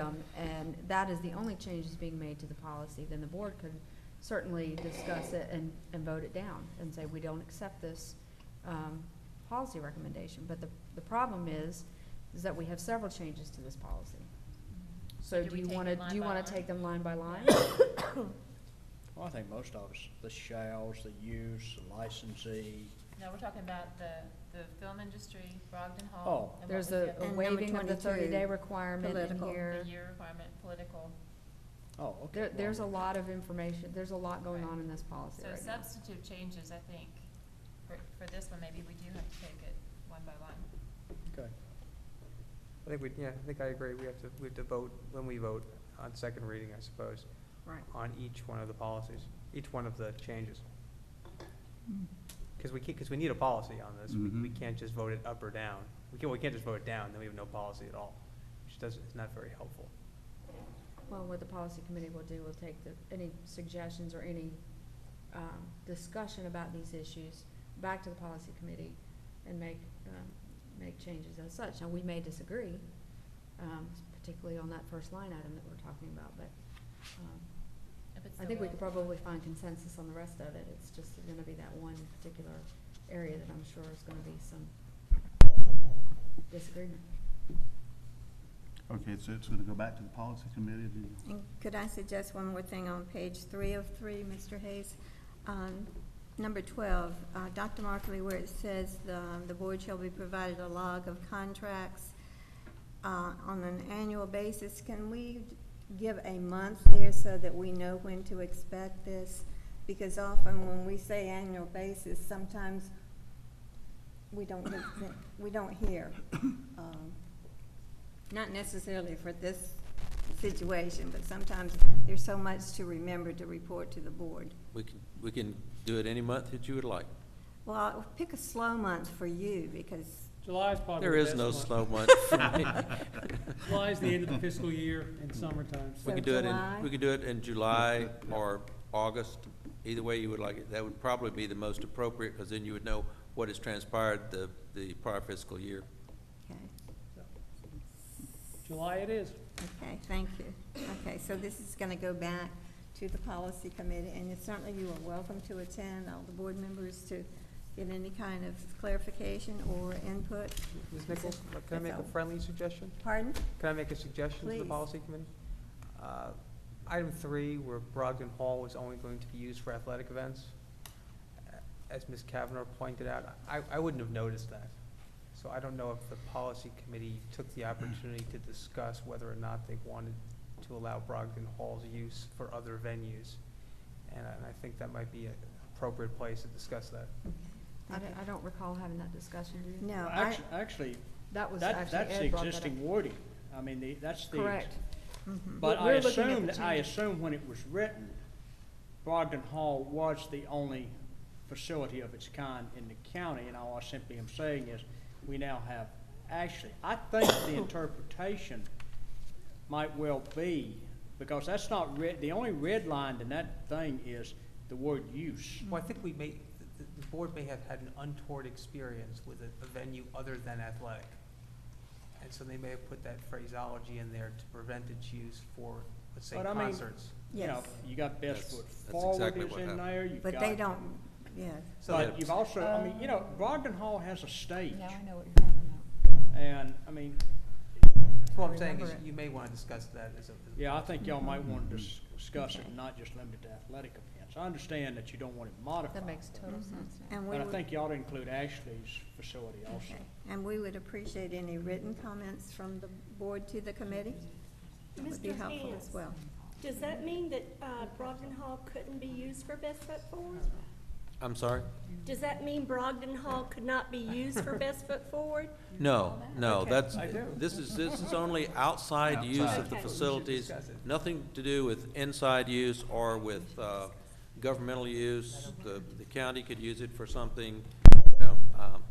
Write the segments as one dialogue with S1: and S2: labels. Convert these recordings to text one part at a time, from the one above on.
S1: Um, And that is the only change that's being made to the policy, then the board could certainly discuss it and, and vote it down and say, we don't accept this um, policy recommendation. But the, the problem is, is that we have several changes to this policy. So
S2: do
S1: do
S2: we
S1: you
S2: take
S1: want to,
S2: them line
S1: do you
S2: by
S1: want to
S2: line?
S1: take them line by line?
S3: Well, I think most of us, the shalls, the use, the licensee,
S2: No, we're talking about the, the film industry, Brogdon Hall.
S3: Oh.
S2: and what
S1: There's
S2: was the
S1: a
S2: other
S1: a
S2: one?
S4: number
S1: waiving of the
S4: 22,
S1: thirty-day requirement in
S4: political.
S1: here.
S2: The year requirement, political.
S3: oh, okay.
S1: There,
S3: well,
S1: there's a lot of information, there's a lot going on in this policy
S2: So
S1: right now.
S2: substantive changes, I think, for, for this one, maybe we do have to take it one by one.
S3: Okay,
S5: I think we, yeah, I think I agree. We have to, we have to vote, when we vote on second reading, I suppose,
S1: Right.
S5: on each one of the policies, each one of the changes. Because we can't, because we need a policy on this. We- We
S6: Mm-hmm.
S7: Mhm.
S5: can't just vote it up or down. We can't, we can't just vote it down, then we have no policy at all, which doesn't, it's not very helpful.
S1: Well, what the policy committee will do, will take the, any suggestions or any, um, discussion about these issues back to the policy committee and make, um, make changes as such. Now, we may disagree, um, particularly on that first line item that we're talking about, but, um,
S2: If it's
S1: I
S2: the
S1: think we
S2: will
S1: could
S2: of the board.
S1: probably find consensus on the rest of it. It's just gonna be that one particular area that I'm sure is gonna be some disagreement.
S7: Okay, so it's gonna go back to the policy committee to,
S4: And could I suggest one more thing on page three of three, Mr. Hayes? Um, Number twelve, uh, Dr. Markley, where it says, the, the board shall be provided a log of contracts uh, on an annual basis, can we give a month there so that we know when to expect this? Because often when we say annual basis, sometimes we don't, get- we don't hear. um, Not necessarily for this situation, but sometimes there's so much to remember to report to the board.
S6: We can, we can do it any month that you would like.
S4: Well, I'll pick a slow month for you because,
S8: July's probably
S6: There
S8: the
S6: is
S8: best
S6: no
S8: month.
S6: slow month for me.
S8: July's the end of the fiscal year in summertime.
S6: We
S4: So
S6: can do it
S4: July?
S6: in, we can do it in July or August, either way you would like it. That would probably be the most appropriate, because then you would know what has transpired the, the prior fiscal year.
S4: okay,
S8: July it is.
S4: okay, thank you. Okay, so this is going to go back to the policy committee, and it's certainly you are welcome to attend, all the board members, to get any kind of clarification or input.
S5: Ms. Nichols, can I
S4: That's
S5: make
S4: all.
S5: a friendly suggestion?
S4: Pardon?
S5: Can I make a suggestion to the
S4: Please.
S5: policy committee? Uh, Item three, where Brogdon Hall is only going to be used for athletic events, uh, as Ms. Kavanaugh pointed out, I, I wouldn't have noticed that. So I don't know if the policy committee took the opportunity to discuss whether or not they wanted to allow Brogdon Hall's use for other venues. And I, and I think that might be an appropriate place to discuss that.
S1: I don't, I don't recall having that discussion, do you?
S4: No, I,
S3: Actu- actually,
S1: That was
S3: that,
S1: actually
S3: that's the
S1: Ed brought that up.
S3: existing wording, I mean, the, that's the.
S1: Correct.
S4: mhm.
S3: But
S1: But we're
S3: I
S1: looking at the
S3: assume, that- I
S1: changes.
S3: assume when it was written, Brogdon Hall was the only facility of its kind in the county, and all I simply am saying is, we now have, actually, I think the interpretation might well be, because that's not red, the only red line in that thing is the word use.
S5: Well, I think we may, the, the board may have had an untoward experience with a, a venue other than athletic. And so they may have put that phraseology in there to prevent its use for, let's say,
S3: But I mean-
S5: concerts.
S3: You know,
S4: yes,
S3: You got best
S6: That's-
S3: foot
S6: that's
S3: forward
S6: exactly
S3: is
S6: what
S3: in
S6: happened.
S3: there, you've got.
S4: but they don't, yeah.
S5: So
S3: But
S5: that,
S6: Yeah.
S3: you've also, I mean, you know, Brogdon Hall has a stage,
S2: Yeah, I know what you're talking about.
S3: and, I mean,
S5: what I'm saying is
S4: Remember it.
S5: you may wanna discuss that as a. as a-
S3: Yeah, I think y'all might want to dis- discuss it,
S4: Okay.
S3: and not just limit it to athletic events. I understand that you don't want it modified.
S1: That makes total
S4: Mhm.
S1: sense now.
S4: And we
S3: But I
S4: would-
S3: think y'all ought to include Ashley's facility also.
S4: Okay, and we would appreciate any written comments from the board to the committee. That would be
S9: Mr.
S4: helpful as
S9: Hands.
S4: well.
S9: Does that mean that uh, Brogdon Hall couldn't be used for Best Foot Forward?
S6: I'm sorry?
S9: Does that mean Brogdon Hall could not be used for Best Foot Forward?
S6: No, no,
S9: Okay.
S6: that's,
S5: I do.
S6: this is, this is only outside use of the
S9: Okay.
S6: facilities.
S5: discuss it.
S6: Nothing to do with inside use or with, uh, governmental use. The, the county could use it for something, you know, um,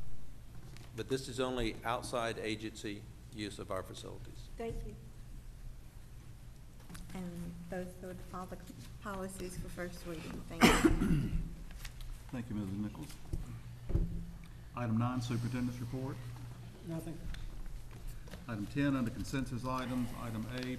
S6: but this is only outside agency use of our facilities.
S9: Thank you.
S4: And those are all the policies for first reading, thank you.
S7: thank you, Mrs. Nichols. Item nine, superintendent's report.
S8: Nothing.
S7: Item ten, under consensus items, item A,